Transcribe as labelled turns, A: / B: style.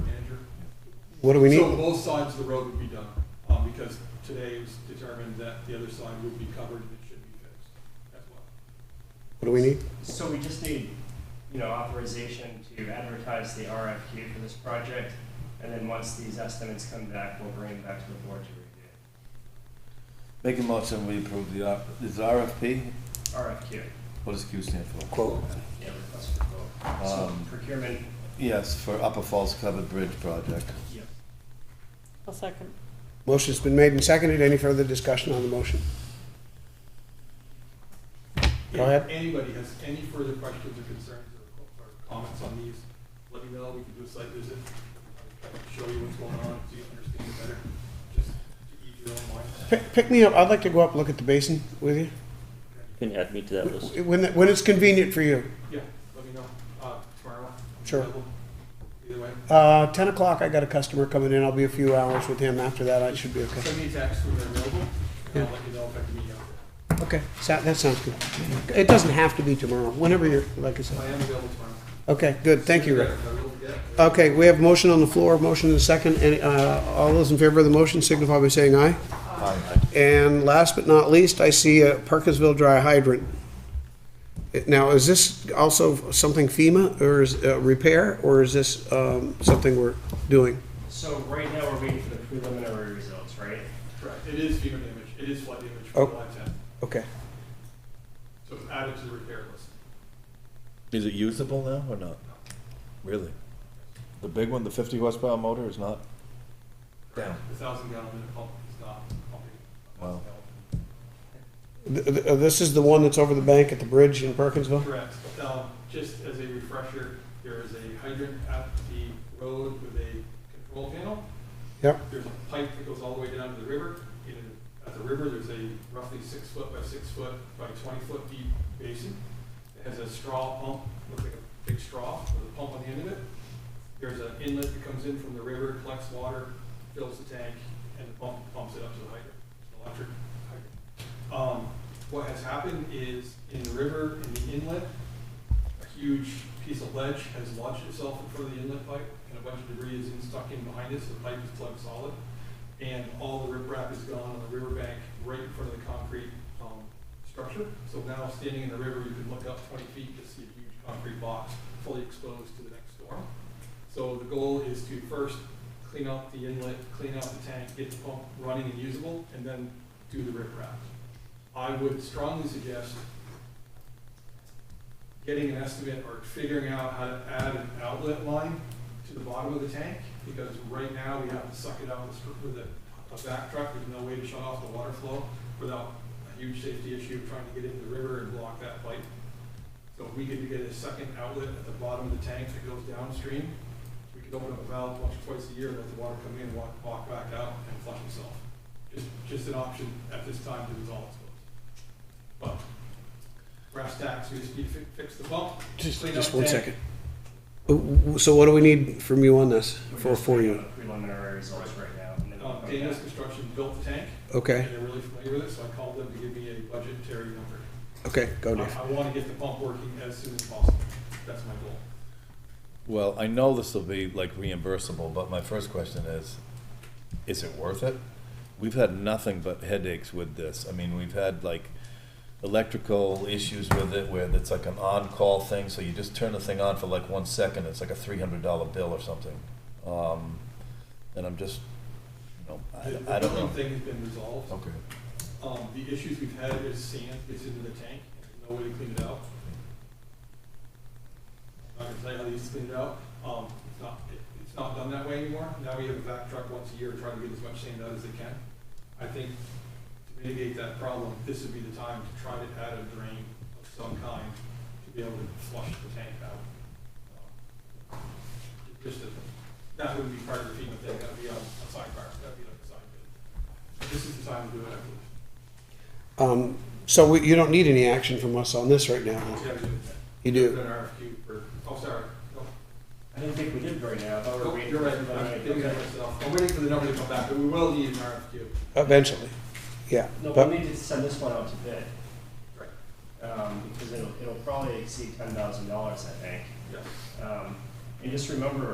A: What do we
B: So
A: need?
B: both sides of the road would be done, um, because today it was determined that the other side would be covered and it should be fixed as well.
A: What do we need?
C: So we just need, you know, authorization to advertise the RFQ for this project, and then once these estimates come back, we'll bring them back to the board to review.
D: Make a motion, we approve the, R- is it RFP,
C: RFQ,
D: what does Q stand for?
A: Quote.
C: yeah, request for quote. So
D: Um,
C: procurement,
D: Yes, for Upper Falls Covered Bridge Project.
C: yeah.
E: I'll second.
A: Motion's been made and seconded. Any further discussion on the motion? Go ahead.
B: If anybody has any further questions or concerns or or comments on these, let me know, we can do a site visit. I can Show you what's going on, so you understand it better, just to ease your own mind.
A: Pick, pick me up. I'd like to go up and look at the basin with you.
F: Can you add me to that list?
A: When, when it's convenient for you.
B: Yeah, let me know, uh, tomorrow. I'm
A: Sure.
B: available. Either way,
A: Uh, 10 o'clock, I got a customer coming in. I'll be a few hours with him. After that, I should be okay.
B: send me a text when they're available, and I'll let you know if I can meet you out there.
A: Okay, so that sounds good. It doesn't have to be tomorrow, whenever you're, like I
B: I
A: said.
B: am available tomorrow.
A: Okay, good, thank you, Rick.
B: I will get-
A: Okay, we have a motion on the floor, motion and a second. Any, uh, all those in favor of the motion signify by saying aye. And last but not least, I see a Perkinsville dry hydrant. It- Now, is this also something FEMA or is, uh, repair, or is this, um, something we're doing?
C: So right now, we're waiting for the preliminary results, right?
B: Correct, it is FEMA damage, it is flood damage from
A: Oh.
B: July tenth,
A: Okay.
B: so it's added to the repair list.
D: Is it usable now or not? Really? The big one, the fifty horsepower motor is not? Down.
B: The thousand gallon minute pump is not pumping.
D: Wow.
A: Th- th- uh, This is the one that's over the bank at the bridge in Perkinsville?
B: Correct. Um, just as a refresher, there is a hydrant at the road with a control panel.
A: Yep.
B: There's a pipe that goes all the way down to the river. In, at the river, there's a roughly six foot by six foot by twenty foot deep basin. It has a straw pump, looks like a big straw with a pump on the end of it. There's an inlet that comes in from the river, collects water, fills the tank, and the pump pumps it up to the hydrant, It's an electric hydrant. Um, what has happened is in the river, in the inlet, a huge piece of ledge has launched itself in front of the inlet pipe, and a bunch of debris is in- stuck in behind it, so the pipe is plugged solid. And all the riprap is gone on the riverbank, right in front of the concrete, um, structure. So now, standing in the river, you can look up twenty feet to see a huge concrete box fully exposed to the next storm. So the goal is to first clean out the inlet, clean out the tank, get the pump running and usable, and then do the riprap. I would strongly suggest getting an estimate or figuring out how to add an outlet line to the bottom of the tank, because right now we have to suck it out with str- with a, a back truck, there's no way to shut off the water flow without a huge safety issue of trying to get into the river and block that pipe. So if we could get a second outlet at the bottom of the tank that goes downstream, we could open up a valve once or twice a year, let the water come in, walk, walk back out and flush itself. Just, just an option at this time to resolve it. But brass tacks, we just need to fi- fix the pump,
A: Just,
B: Clean
A: just
B: up
A: one
B: tank.
A: second. Uh, w- So what do we need from you on this,
C: We're
A: for,
C: just
A: for
C: waiting
A: you?
C: on the Preliminary results right now. and then we'll
B: Um,
C: come
B: Dana's
C: back.
B: Construction built the tank,
A: Okay,
B: and they're really familiar with it, so I called them to give me a budgetary number.
A: okay, go Dave.
B: I, I wanna get the pump working as soon as possible, that's my goal.
D: Well, I know this will be like reimbursable, but my first question is, is it worth it? We've had nothing but headaches with this. I mean, we've had like electrical issues with it where it's like an on-call thing, so you just turn the thing on for like one second, it's like a three hundred dollar bill or something. Um, and I'm just, you know,
B: The-
D: I, I
B: The
D: don't know.
B: billing thing has been resolved,
D: Okay.
B: um, the issues we've had is sand gets into the tank, and there's no way to clean it out. I'm not gonna tell you how they used to clean it out, um, it's not, it- it's not done that way anymore, now we have a vac truck once a year trying to get as much sand out as they can. I think to mitigate that problem, this would be the time to try to add a drain of some kind to be able to flush the tank out. Um, Just, a- that wouldn't be part of the FEMA thing, that'd be on a side part, that'd be like a side bid. This is the time to do it, I believe.
A: Um, so we, you don't need any action from us on this right now. then?
B: Yeah, we do.
A: You
B: Put
A: do.
B: an RFQ for, oh, sorry. No,
C: I didn't think we did right now, I thought we were
B: no,
C: waiting.
B: You're
C: for
B: right,
C: the
B: I'm
C: preliminary.
B: thinking of myself. I'm waiting for the number to come back, but we will need an RFQ.
A: Eventually. Yeah.
C: No,
A: but-
C: we'll need to send this one out to bid.
B: Right.
C: Um, because it'll, it'll probably exceed ten thousand dollars, I think.
B: Yes.
C: Um, and just remember,